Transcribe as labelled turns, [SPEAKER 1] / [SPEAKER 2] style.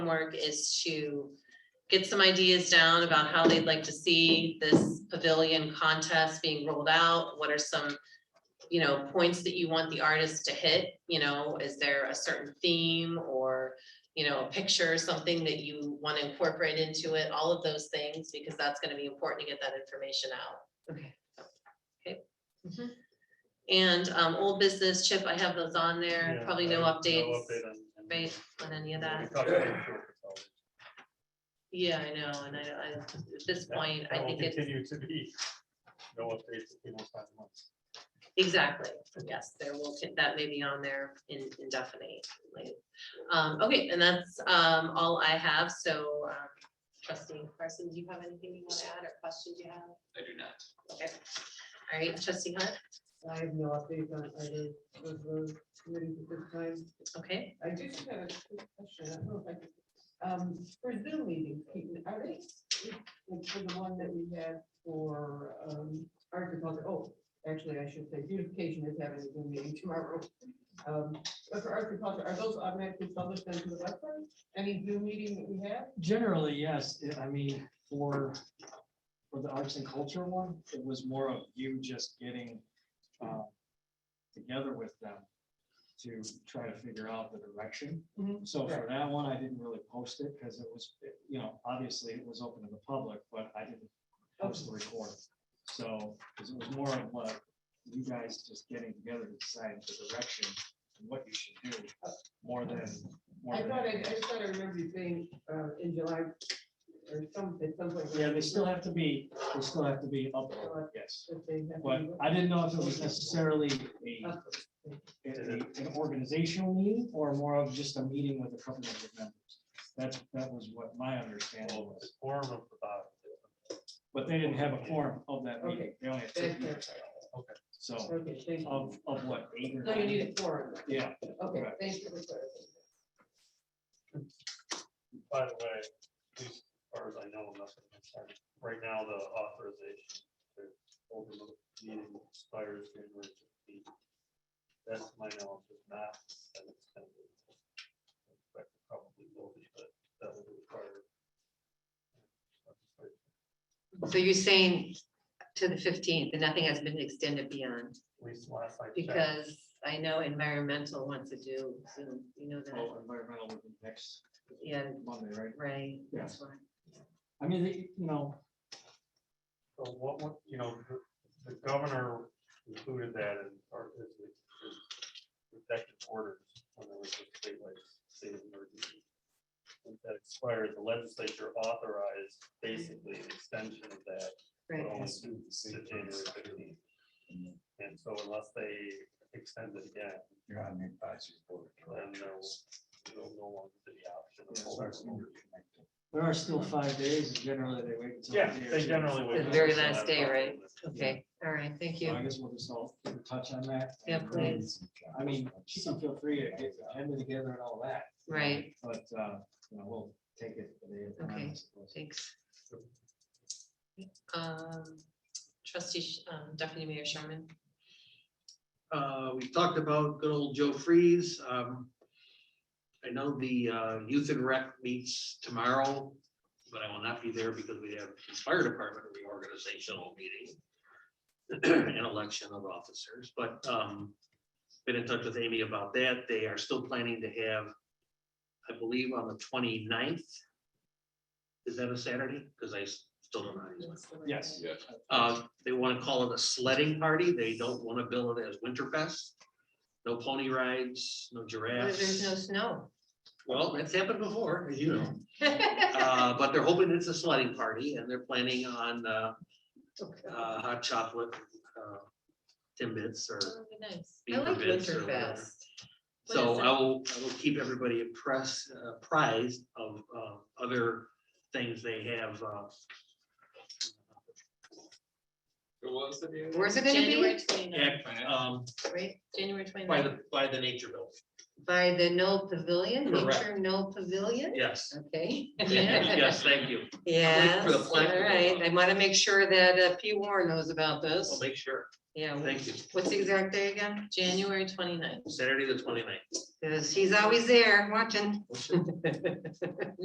[SPEAKER 1] homework is to get some ideas down about how they'd like to see this pavilion contest being rolled out. What are some, you know, points that you want the artist to hit? You know, is there a certain theme or, you know, a picture or something that you want to incorporate into it? All of those things, because that's going to be important to get that information out. Mm-hmm.
[SPEAKER 2] Okay.
[SPEAKER 1] And um, old business, Chip, I have those on there,
[SPEAKER 3] Yeah,
[SPEAKER 1] probably no
[SPEAKER 3] I-
[SPEAKER 1] updates,
[SPEAKER 3] update on- on-
[SPEAKER 1] right, on any of
[SPEAKER 3] We
[SPEAKER 1] that.
[SPEAKER 3] talked about it before, so
[SPEAKER 1] Yeah, I know, and I, I, at this
[SPEAKER 3] that-
[SPEAKER 1] point,
[SPEAKER 3] that
[SPEAKER 1] I
[SPEAKER 3] will
[SPEAKER 1] think it's,
[SPEAKER 3] Continue to be no updates in those five months.
[SPEAKER 1] exactly, yes, there will, that may be on there in indefinitely. Um, okay, and that's um, all I have, so um, trustee Carson, do you have anything you want to add or questions you have?
[SPEAKER 4] I do not.
[SPEAKER 1] Okay, all right, trustee Hunt,
[SPEAKER 2] I have no update on either of those committees at this time.
[SPEAKER 1] okay,
[SPEAKER 2] I do just have a quick question. I don't know if I could- Um, for Zoom meetings, Keaton, are they, like, for the one that we had for, um, agriculture, oh, actually, I should say beautification is having a Zoom meeting tomorrow. Um, but for agriculture, are those automatically published onto the website? Any Zoom meeting that we have?
[SPEAKER 5] Generally, yes, I- I mean, for, for the arts and culture one, it was more of you just getting uh, together with them to try to figure out the direction.
[SPEAKER 2] Mhm.
[SPEAKER 5] So for that one, I didn't really post it because it was, you know, obviously it was open to the public, but I didn't post the recording. So, because it was more of what you guys just getting together to decide the direction and what you should do, more than. more
[SPEAKER 2] Oh. I
[SPEAKER 5] than
[SPEAKER 2] thought, I, I
[SPEAKER 5] anything.
[SPEAKER 2] just thought I remember you saying, uh, in July, or some, at some point.
[SPEAKER 5] Yeah, they still have to be, they still have to be uploaded, yes.
[SPEAKER 2] that they have to
[SPEAKER 5] But
[SPEAKER 2] do it.
[SPEAKER 5] I didn't know if it was necessarily a,
[SPEAKER 2] Uh,
[SPEAKER 5] a- an organizational meeting or more of just a meeting with a couple of members. That's, that was what my understanding
[SPEAKER 3] Well, the
[SPEAKER 5] was,
[SPEAKER 3] Form of the body.
[SPEAKER 5] but they didn't have a quorum of that meeting. They only had two
[SPEAKER 2] that's
[SPEAKER 5] people,
[SPEAKER 2] it.
[SPEAKER 5] so
[SPEAKER 2] Okay, thank you.
[SPEAKER 5] of, of what, eight or
[SPEAKER 2] No, you
[SPEAKER 5] nine?
[SPEAKER 2] need a forum.
[SPEAKER 5] Yeah,
[SPEAKER 2] Okay,
[SPEAKER 5] Right.
[SPEAKER 2] thank you for clarifying.
[SPEAKER 3] By the way, at least as far as I know, nothing. inside. Right now, the authorization to open the meeting expires January fifteenth. That's my knowledge, if not, then it's kind of. but Probably will be, but that would require.
[SPEAKER 6] So you're saying to the fifteenth, and nothing has been extended beyond,
[SPEAKER 3] At least last I checked.
[SPEAKER 6] because I know environmental wants to do, Zoom, you know that,
[SPEAKER 5] well, Oh, environmental would be next
[SPEAKER 6] yeah,
[SPEAKER 5] Monday, right?
[SPEAKER 6] right, that's why.
[SPEAKER 5] I mean, they- you know,
[SPEAKER 3] So what, would- you know, the- the governor included that in our, his, his protective orders when there was a statewide state of emergency. Once That expired, the legislature authorized basically an extension of that. but
[SPEAKER 6] Right.
[SPEAKER 3] only to January 15th. And so unless they extend it again,
[SPEAKER 7] You're on the advisory board. of
[SPEAKER 3] then there will,
[SPEAKER 7] directors.
[SPEAKER 3] there will no longer be the option.
[SPEAKER 7] Yeah,
[SPEAKER 3] of
[SPEAKER 7] so it's
[SPEAKER 3] holding-
[SPEAKER 7] interconnected.
[SPEAKER 5] there are still five days and generally they wait until.
[SPEAKER 3] Yeah,
[SPEAKER 5] the day or
[SPEAKER 3] they
[SPEAKER 5] two.
[SPEAKER 3] generally. wait
[SPEAKER 6] The
[SPEAKER 3] until
[SPEAKER 6] very
[SPEAKER 3] that
[SPEAKER 6] last day,
[SPEAKER 3] problem
[SPEAKER 6] right?
[SPEAKER 3] is-
[SPEAKER 6] Okay, all right, thank
[SPEAKER 5] So I
[SPEAKER 6] you.
[SPEAKER 5] guess we'll just all keep in touch on that.
[SPEAKER 6] Yeah,
[SPEAKER 5] and, um,
[SPEAKER 6] please.
[SPEAKER 5] I mean, she can feel free to get the agenda together and all that. you know,
[SPEAKER 6] Right.
[SPEAKER 5] But, uh, you know, we'll take it. for the time, I
[SPEAKER 6] Okay.
[SPEAKER 5] suppose.
[SPEAKER 6] Thanks.
[SPEAKER 1] um, trustee, Sh- um, deputy mayor Sherman,
[SPEAKER 8] Uh, we talked about good old Joe Freeze. Um, I know the, uh, youth and rec meets tomorrow, but I will not be there because we have fire department reorganizational meeting and election of officers, but, um, been in touch with Amy about that. They are still planning to have, I believe, on the 29th. Is that a Saturday? Because I s- still don't know. how to use my
[SPEAKER 5] Yes.
[SPEAKER 8] uh, They want to call it a sledding party. They don't want to bill it as Winterfest. No pony rides, no
[SPEAKER 6] What if there's no
[SPEAKER 8] giraffes.
[SPEAKER 6] snow?
[SPEAKER 8] Well, that's happened before, as you know. Uh, But they're hoping it's a sledding party and they're planning on uh, uh, hot chocolate uh, timbits or,
[SPEAKER 1] that would be nice.
[SPEAKER 6] I like
[SPEAKER 8] Beaver Beds or whatever.
[SPEAKER 1] What
[SPEAKER 6] Winterfest.
[SPEAKER 1] is
[SPEAKER 8] so I
[SPEAKER 1] that?
[SPEAKER 8] will, I will keep everybody impressed, uh, apprised of uh, other things they have. uh,
[SPEAKER 4] What was the name?
[SPEAKER 6] Where's it gonna
[SPEAKER 1] January
[SPEAKER 6] be?
[SPEAKER 1] twenty-ninth,
[SPEAKER 8] act, um,
[SPEAKER 6] Right,
[SPEAKER 1] January
[SPEAKER 8] By
[SPEAKER 1] twenty-ninth,
[SPEAKER 8] the, by the nature bill.
[SPEAKER 6] by the Knoll Pavilion,
[SPEAKER 8] Correct.
[SPEAKER 6] Nature Knoll Pavilion,
[SPEAKER 8] Yes,
[SPEAKER 6] okay?
[SPEAKER 8] yes, thank you.
[SPEAKER 6] Yes,
[SPEAKER 8] for the
[SPEAKER 6] all
[SPEAKER 8] plaque to go
[SPEAKER 6] right,
[SPEAKER 8] up.
[SPEAKER 6] I want to make sure that uh, P Warren knows about
[SPEAKER 8] I'll
[SPEAKER 6] this,
[SPEAKER 8] make sure.
[SPEAKER 6] yeah.
[SPEAKER 8] Thank you.
[SPEAKER 6] What's the exact day again?
[SPEAKER 1] January twenty-ninth.
[SPEAKER 8] Saturday, the 29th.
[SPEAKER 6] Because he's always there watching.